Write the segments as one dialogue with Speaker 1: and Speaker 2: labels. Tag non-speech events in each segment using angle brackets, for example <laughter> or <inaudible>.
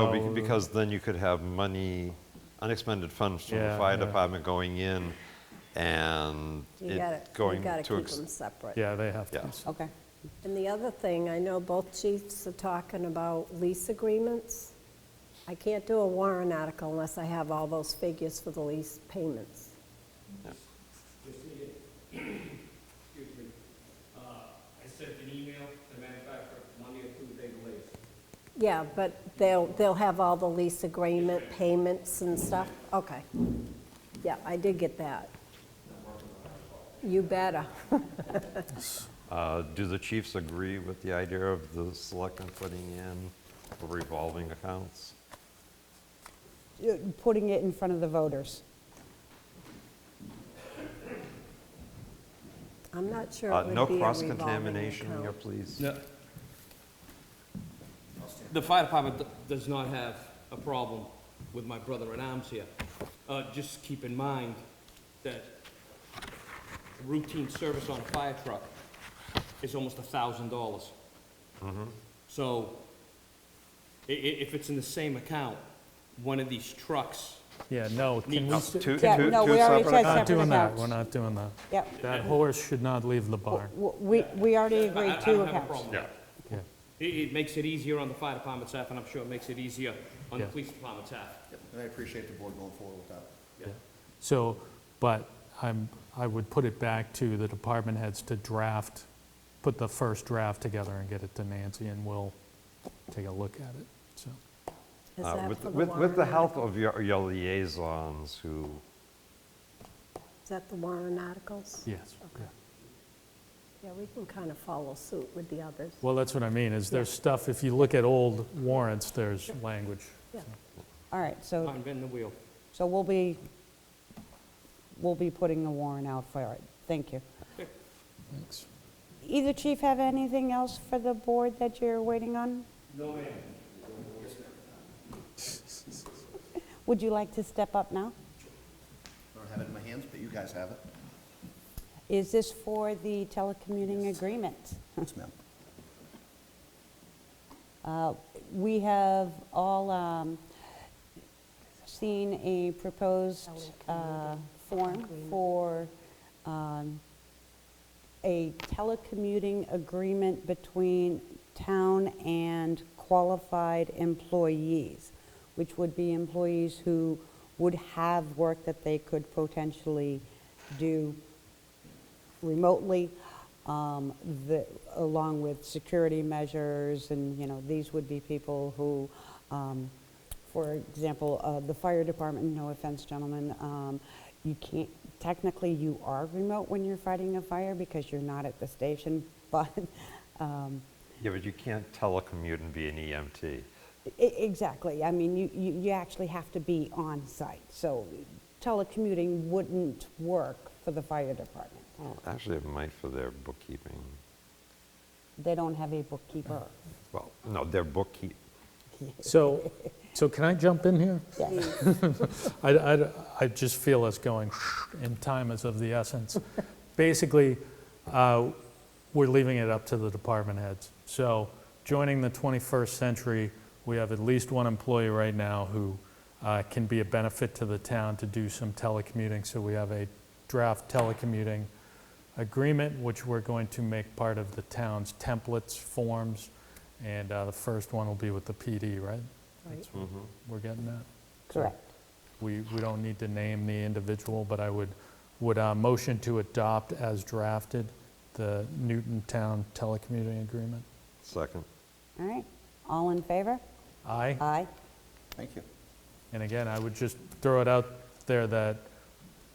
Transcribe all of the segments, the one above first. Speaker 1: Oh, bec- Because then you could have money, unexpended funds from the
Speaker 2: Yeah,
Speaker 1: fire
Speaker 2: yeah.
Speaker 1: department going in and
Speaker 3: You gotta,
Speaker 1: it
Speaker 3: you
Speaker 1: going
Speaker 3: gotta
Speaker 1: to,
Speaker 3: keep them
Speaker 1: ex-
Speaker 3: separate.
Speaker 2: Yeah, they have to.
Speaker 1: Yeah.
Speaker 4: Okay.
Speaker 3: And the other thing, I know both chiefs are talking about lease agreements. I can't do a warrant article unless I have all those figures for the lease payments.
Speaker 5: <clears throat> excuse me, uh, I sent an email to the manufacturer Monday or Tuesday late.
Speaker 3: Yeah, but they'll, they'll have all the lease agreement payments and stuff? Okay. Yeah, I did get that. You better.
Speaker 1: Uh, do the chiefs agree with the idea of the selectmen putting in revolving accounts?
Speaker 4: Uh, Putting it in front of the voters.
Speaker 3: I'm not sure
Speaker 1: Uh,
Speaker 3: it would be
Speaker 1: No
Speaker 3: a revolving
Speaker 1: cross-contamination here,
Speaker 3: account.
Speaker 1: please.
Speaker 5: The fire department d- does not have a problem with my brother-in-arms here. Uh, just keep in mind that routine service on a fire truck is almost a thousand dollars.
Speaker 2: Mm-hmm.
Speaker 5: So, i- i- if it's in the same account, one of these trucks,
Speaker 2: Yeah, no, can we,
Speaker 1: No,
Speaker 2: s-
Speaker 1: Two, two, two
Speaker 4: Yeah, no, we
Speaker 1: separate
Speaker 4: already said
Speaker 1: accounts?
Speaker 2: not Uh, doing that,
Speaker 4: accounts.
Speaker 2: we're not doing that.
Speaker 4: Yep.
Speaker 2: That horse should not leave the barn.
Speaker 4: W- We, we already
Speaker 5: I I
Speaker 4: agreed two
Speaker 5: don't have a
Speaker 4: accounts.
Speaker 5: problem with
Speaker 1: Yeah,
Speaker 5: that.
Speaker 2: Yeah.
Speaker 5: It, it makes it easier on the fire department staff, and I'm sure it makes it easier on the
Speaker 2: Yeah.
Speaker 5: police department staff.
Speaker 6: And I appreciate the board going forward with that.
Speaker 2: So, but I'm, I would put it back to the department heads to draft, put the first draft together and get it to Nancy, and we'll take a look at it, so.
Speaker 3: Is
Speaker 1: Uh,
Speaker 3: that
Speaker 1: with-
Speaker 3: for the
Speaker 1: With, with
Speaker 3: warrant
Speaker 1: the
Speaker 3: article?
Speaker 1: help of your, your liaisons who,
Speaker 3: Is that the warrant articles?
Speaker 2: Yes. yeah.
Speaker 3: Yeah, we can kind of follow suit with the others.
Speaker 2: Well, that's what I mean, is there's stuff, if you look at old warrants, there's language.
Speaker 3: Yeah.
Speaker 4: All right, so,
Speaker 5: I'm bending the wheel.
Speaker 4: so we'll be, we'll be putting the warrant out for it. Thank you.
Speaker 2: Thanks.
Speaker 4: Either chief have anything else for the board that you're waiting on?
Speaker 5: No, ma'am.
Speaker 4: Would you like to step up now?
Speaker 6: I don't have it in my hands, but you guys have it.
Speaker 4: Is this for the telecommuting agreement?
Speaker 6: Yes, ma'am.
Speaker 4: Uh, We have all um, seen a proposed uh, form for um, a telecommuting agreement between town and qualified employees, which would be employees who would have work that they could potentially do remotely, um, the- along with security measures, and, you know, these would be people who, um, for example, uh, the fire department, no offense, gentlemen, um, you can't, technically, you are remote when you're fighting a fire because you're not at the station, <laughs> but, um,
Speaker 1: yeah, but you can't telecommute and be an EMT.
Speaker 4: e- exactly, I mean, you- you you actually have to be on site, so telecommuting wouldn't work for the fire department.
Speaker 1: Well, Actually, it might for their bookkeeping.
Speaker 4: They don't have a bookkeeper.
Speaker 1: Well, no, their bookkeep,
Speaker 2: So, so can I jump in here? <laughs> I, I, I just feel us going, and time is of the essence. Basically, uh, we're leaving it up to the department heads. So joining the 21st century, we have at least one employee right now who uh, can be a benefit to the town to do some telecommuting. So we have a draft telecommuting agreement, which we're going to make part of the town's templates, forms, and uh, the first one will be with the PD, right? That's what We're getting that?
Speaker 4: Correct.
Speaker 2: We, we don't need to name the individual, but I would, would uh, motion to adopt as drafted the Newton Town telecommuting agreement.
Speaker 1: second.
Speaker 4: All right, all in favor?
Speaker 2: Aye?
Speaker 4: Aye.
Speaker 6: Thank you.
Speaker 2: And again, I would just throw it out there that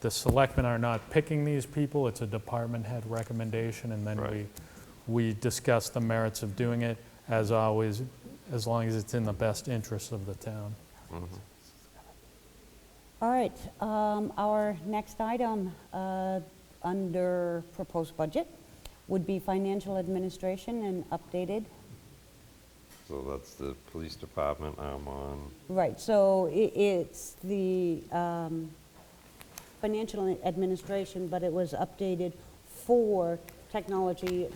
Speaker 2: the selectmen are not picking these people, it's a department head recommendation, and then we,
Speaker 1: Right.
Speaker 2: we discuss the merits of doing it, as always, as long as it's in the best interests of the town.
Speaker 4: All right, um, our next item uh, under proposed budget would be financial administration and updated.
Speaker 1: So that's the police department I'm on.
Speaker 4: Right, so i- it's the um, financial administration, but it was updated for technology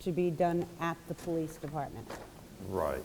Speaker 4: to be done at the police department.
Speaker 1: Right.